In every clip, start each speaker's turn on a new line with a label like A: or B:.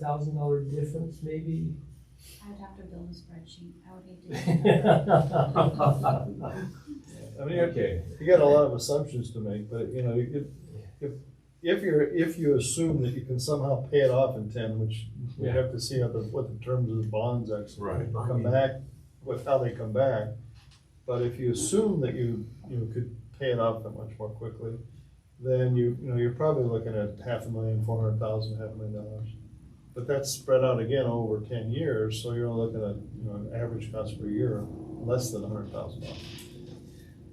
A: thousand dollar difference maybe?
B: I would have to build a spreadsheet, I would hate to. do that.
A: Well,
C: I mean, you-
D: Okay,
C: you got a lot of assumptions to make, but you know, you could, if, if you're, if you assume that you can somehow pay it off in ten, which we
D: Yeah.
C: have to see how the, what the terms of the bonds actually
D: right,
C: come back, with how they come back. But if you assume that you, you could pay it off that much more quickly, then you, you know, you're probably looking at half a million, four hundred thousand, half a million dollars. But that's spread out again over ten years, so you're looking at, you know, an average cost per year, less than a hundred thousand dollars.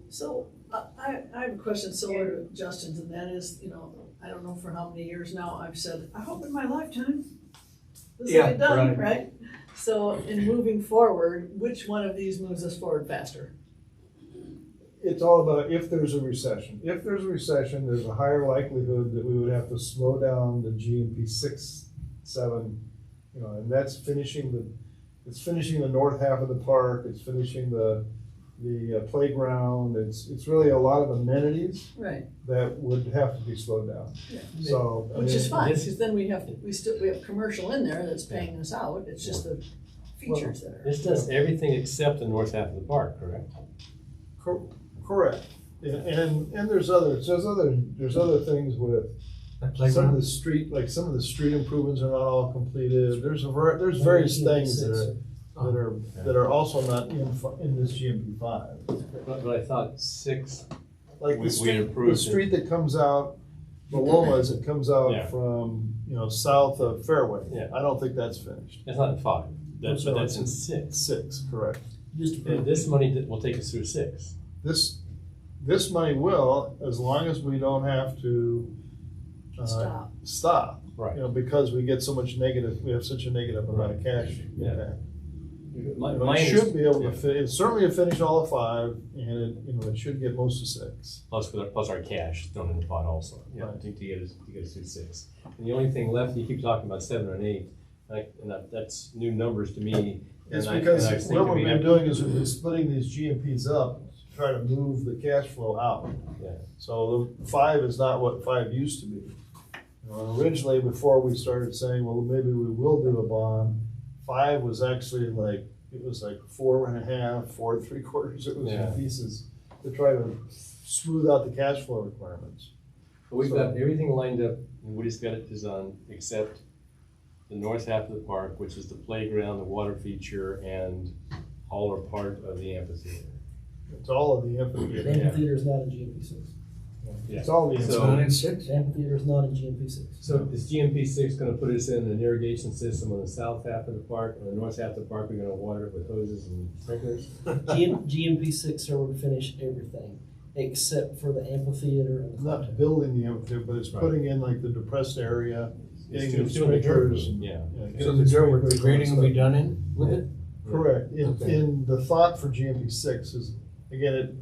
E: So, I- I, I have a question similar to Justin's, and that is, you know, I don't know for how many years now, I've said, I hope in my lifetime this will
D: Yeah,
E: be done, right? So, in moving forward, which one of these moves us forward faster?
C: It's all about if there's a recession. If there's a recession, there's a higher likelihood that we would have to slow down the GMP six, seven, you know, and that's finishing the, it's finishing the north half of the park, it's finishing the, the uh, playground, it's, it's really a lot of amenities
E: Right.
C: that would have to be slowed down.
E: Yeah.
C: So. I
E: Which is
C: mean,
E: fine,
A: this-
E: because then we have, to we still, we have commercial in there that's paying us out, it's just the features that are.
A: This does everything except the north half of the park, correct?
C: Cor- Correct. And- And, and there's others, there's other, there's other things with Some of the street, like some of the street improvements are not all completed. There's a, ver- there's various things that are, that are, that are also not in, fu- in this GMP five.
A: But, but I thought six,
C: Like
D: We- we
C: the street, the
D: improved it.
C: street that comes out, Maloma as it comes out
D: Yeah.
C: from, you know, south of Fairway.
A: Yeah.
C: I don't think that's finished.
A: that's not in five, that's, but
C: No,
A: that's
C: it's
A: in six.
C: Six, correct.
A: And this money that will take us through six.
C: This, this money will, as long as we don't have to. uh,
E: Stop.
C: Stop.
A: Right.
C: You know, because we get so much negative, we have such a negative amount of cash
A: Yeah.
C: impact.
A: My,
C: You know,
A: my
C: It
A: under-
C: should be able
A: yeah.
C: to fit, it's certainly a finish all of five, and it, you know, it should get most of six.
A: Plus, with our- plus our cash thrown in the pot also, you know,
C: Right.
A: to, to get us, to get us through six. And the only thing left, you keep talking about seven and eight, like, and that, that's new numbers to me.
C: It's
A: and I-
C: because
A: and I was
C: what
A: thinking
C: we've
A: we'd
C: been
A: have-
C: doing is we've been splitting these GMPs up, to try to move the cash flow out.
A: Yeah.
C: So the five is not what five used to be. You know, Originally, before we started saying, well, maybe we will do a bond, five was actually like, it was like four and a half, four and three quarters, it was
A: Yeah.
C: in pieces to try to smooth out the cash flow requirements.
A: But We've got everything lined up, and we just got it designed, except the north half of the park, which is the playground, the water feature, and all are part of the amphitheater.
C: It's all of the amphitheater.
F: Amphitheater is not in GMP six.
C: It's all the
A: So-
C: amphitheater.
F: The Amphitheater is not in GMP six.
A: So is GMP six gonna put us in an irrigation system on the south half of the park, on the north half of the park, we're gonna water it with hoses and sprinklers?
F: GM, GMP six are would finish everything except for the amphitheater and the clubhouse.
C: not building the amphitheater, but it's
A: Right.
C: putting in like the depressed area.
A: It's
C: getting
A: doing- doing the dirt.
C: sprinklers and-
A: Yeah,
C: yeah,
A: So
C: getting
G: the dirt
C: sprinklers
G: work, the
C: and
G: grading will be
C: stuff.
G: done in with it?
C: Correct, in,
G: Okay.
C: in the thought for GMP six is, again, it,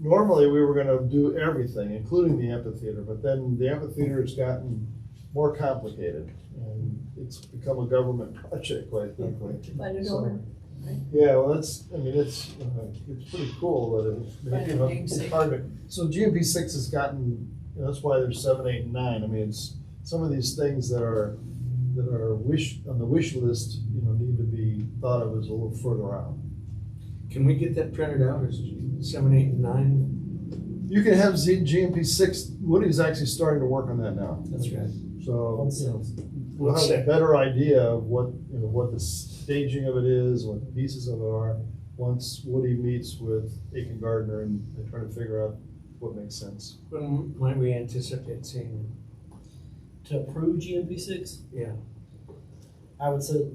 C: normally we were gonna do everything, including the amphitheater, but then the amphitheater has gotten more complicated. And it's become a government project quite quickly.
E: Find a
C: So-
E: donor.
C: Yeah, well, that's, I mean, it's, uh, it's pretty cool that it- that, you know, it's hard to, so GMP six has gotten, you know, that's why there's seven, eight, and nine, I mean, it's, some of these things that are, that are wish, on the wish list, you know, need to be thought of as a little further out.
G: Can we get that printed out, is seven, eight, and nine?
C: You can have Z, GMP six, Woody's actually starting to work on that now,
F: That's right.
C: so,
F: On
C: you know,
F: sales.
C: we'll have a
G: Sick.
C: better idea of what, you know, what the staging of it is, what the pieces of it are, once Woody meets with Aiken Gardner and they try to figure out what makes sense.
G: When might we anticipate seeing,
F: To approve GMP six,
G: yeah,
F: I would say,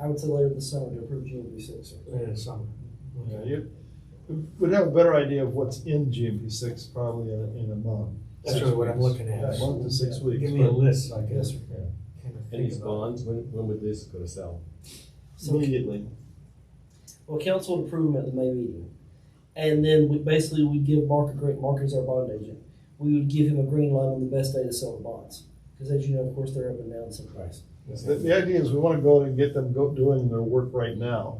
F: I would say later this summer to approve GMP six.
G: in the summer?
C: Yeah, you, we'd have a better idea of what's in GMP six probably in, a- in a month.
G: That's really what I'm looking
C: Yeah,
G: at.
C: a month to six weeks.
G: Give me a
C: but
G: list, so I can
F: Yes,
G: kind
F: sir.
G: of
A: and
G: think
A: these
G: about.
A: bonds, when, when would this go to sell?
F: So,
C: Immediately.
F: well, council would approve them at the May meeting. And then we, basically we give Mark a great, Mark is our bond agent. We would give him a green line on the best day to sell the bonds. Cause as you know, of course, they're up and down some price.
C: The, the idea is we wanna go and get them go, doing their work right now,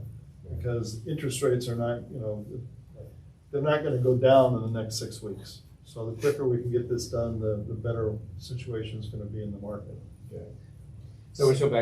C: because interest rates are not, you know, they're not gonna go down in the next six weeks. So the quicker we can get this done, the, the better situation's gonna be in the market.
A: So we show back